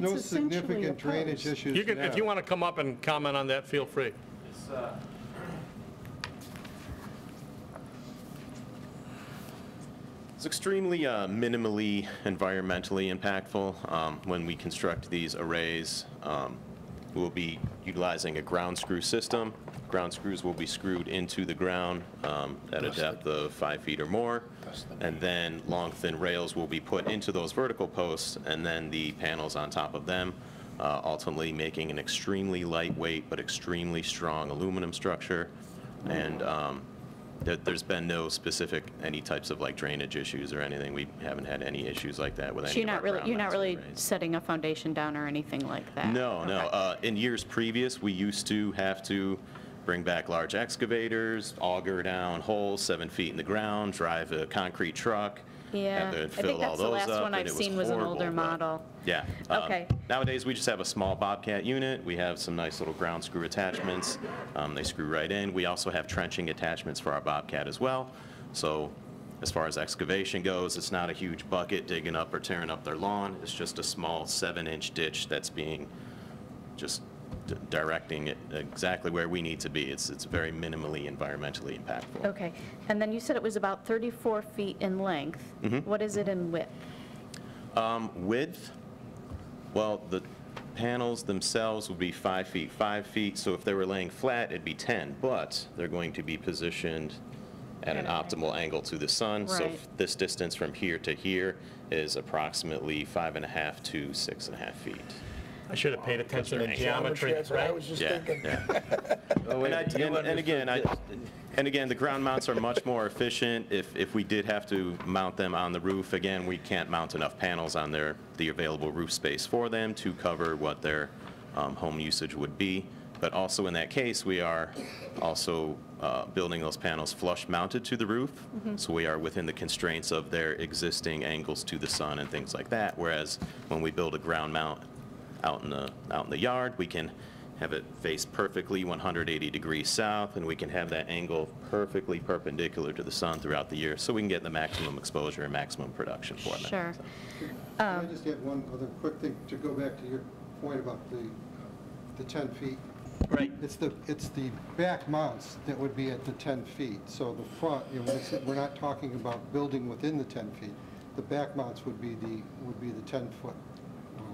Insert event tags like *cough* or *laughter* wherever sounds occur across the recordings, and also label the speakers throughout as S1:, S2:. S1: No
S2: It's essentially
S1: significant drainage
S2: opposed.
S1: issues
S3: You can, if
S1: now.
S3: you want to come up and comment on that, feel free.
S4: It's extremely uh, minimally environmentally impactful. Um, When we construct these arrays, um, we'll be utilizing a ground screw system. Ground screws will be screwed into the ground um, at a depth of five feet or more, and then long, thin rails will be put into those vertical posts, and then the panels on top of them, uh, ultimately making an extremely lightweight but extremely strong aluminum structure. And um, there, there's been no specific, any types of like drainage issues or anything. We haven't had any issues like that with any
S2: So you're
S4: of our
S2: not really,
S4: ground
S2: you're not
S4: mounts or
S2: really
S4: arrays.
S2: setting a foundation down or anything like that?
S4: No, no.
S2: Okay.
S4: Uh, in years previous, we used to have to bring back large excavators, auger down holes seven feet in the ground, drive a concrete truck.
S2: Yeah,
S4: have to
S2: I
S4: fill
S2: think
S4: all
S2: that's the
S4: those
S2: last
S4: up,
S2: one
S4: and
S2: I've
S4: it
S2: seen was an
S4: horrible,
S2: older
S4: but-
S2: model.
S4: Yeah. um,
S2: Okay.
S4: Nowadays, we just have a small Bobcat unit. We have some nice little ground screw attachments. Um, They screw right in. We also have trenching attachments for our Bobcat as well. So as far as excavation goes, it's not a huge bucket digging up or tearing up their lawn. It's just a small seven-inch ditch that's being just d- directing it exactly where we need to be. It's, it's very minimally environmentally impactful.
S2: Okay, and then you said it was about 34 feet in length. What is it in width?
S4: Um, Width, well, the panels themselves would be five feet, five feet, so if they were laying flat, it'd be 10, but they're going to be positioned at an optimal angle to the sun. So
S2: Right.
S4: this distance from here to here is approximately five and a half to six and a half feet.
S3: I should have paid attention to geometry.
S5: That's what I was just
S4: Yeah,
S5: thinking.
S4: yeah. And
S5: *laughs*
S4: I- And and again, I, and again, the ground mounts are much more efficient. If, if we did have to mount them on the roof, again, we can't mount enough panels on their, the available roof space for them to cover what their um, home usage would be. But also in that case, we are also uh, building those panels flush mounted to the roof.
S5: Mm-hmm.
S4: So we are within the constraints of their existing angles to the sun and things like that. Whereas when we build a ground mount out in the, out in the yard, we can have it face perfectly 180 degrees south, and we can have that angle perfectly perpendicular to the sun throughout the year, so we can get the maximum exposure and maximum production for them.
S2: Sure.
S4: So-
S2: Um,
S1: Can I just add one other quick thing to go back to your point about the, uh, the 10 feet?
S4: Right.
S1: It's the, it's the back mounts that would be at the 10 feet. So the front, you know, it's- we're not talking about building within the 10 feet. The back mounts would be the, would be the 10-foot.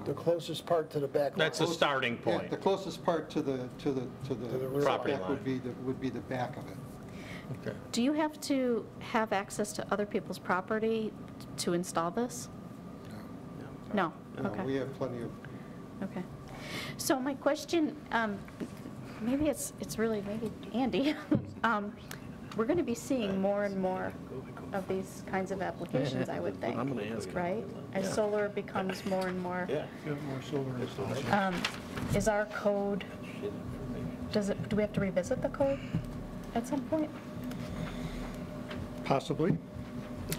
S5: The closest part to the back.
S3: That's the
S5: line.
S3: starting point.
S1: The closest part to the, to the, to
S5: To the
S1: the
S5: rear. Property
S1: setback
S3: line.
S1: would be, the would be the back of it.
S2: Do you have to have access to other people's property to install this? No?
S1: Uh,
S2: Okay.
S1: We have plenty of
S2: Okay. So my question, um, maybe it's, it's really, maybe Andy, *laughs* um, we're going to be seeing more and more of these kinds of applications, I would think. Right? As solar becomes more and more. Yeah, more solar Is our code, does it, do we have to revisit the code at some point?
S6: Possibly.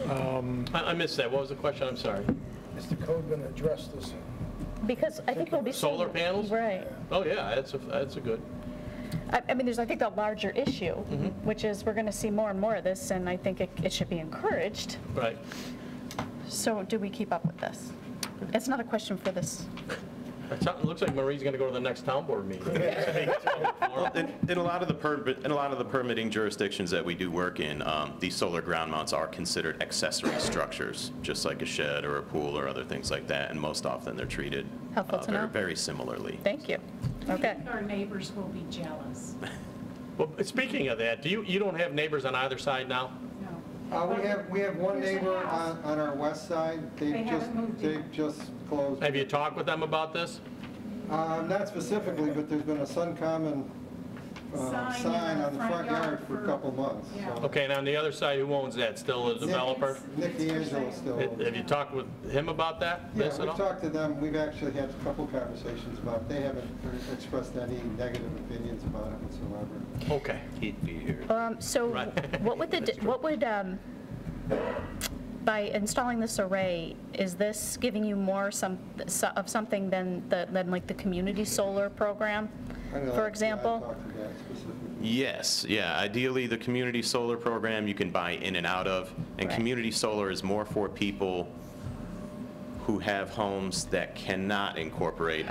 S3: I I missed that. What was the question? I'm sorry.
S5: Is the code going to address this?
S2: Because I think we'll be. seeing-
S3: Solar panels?
S2: Right.
S3: Oh, yeah, that's a, that's a good.
S2: I, I mean, there's, I think, the larger issue, which is we're going to see more and more of this, and I think it, it should be encouraged.
S3: Right.
S2: So do we keep up with this? It's not a question for this.
S3: It sounds- it looks like Marie's going to go to the next town board meeting.
S4: In, in a lot of the permit, in a lot of the permitting jurisdictions that we do work in, um, these solar ground mounts are considered accessory structures, just like a shed or a pool or other things like that, and most often they're treated uh,
S2: Helpful to
S4: very-
S2: know.
S4: very similarly.
S2: Thank you. Okay.
S7: Our neighbors will be jealous.
S3: Well, speaking of that, do you, you don't have neighbors on either side now?
S1: Uh, we have, we have one
S7: There's a
S1: neighbor
S7: house.
S1: on, on our west side.
S7: They
S1: They've
S7: haven't
S1: just,
S7: moved yet.
S1: they've just closed.
S3: Have you talked with them about this?
S1: Uh, not specifically, but there's been a Suncommon, uh,
S7: Sign in
S1: sign on the front yard for a couple months.
S7: yeah.
S1: so.
S3: Okay, and on the other side, who owns that? Still a developer?
S1: Nick D'Angelo still.
S3: Have have you talked with him about that?
S1: Yeah,
S3: This at
S1: we've
S3: all?
S1: talked to them. We've actually had a couple conversations about, it. they haven't expressed any negative opinions about it whatsoever.
S3: Okay.
S2: Um, So *laughs*
S3: Right.
S2: what would the, di- what would, um, by installing this array, is this giving you more some, so- of something than, the than like the community solar program,
S1: I know,
S2: for
S1: I
S2: example?
S1: talked to that specifically.
S4: Yes, yeah. Ideally, the community solar program you can buy in and out of, and
S2: Right.
S4: community solar is more for people who have homes that cannot incorporate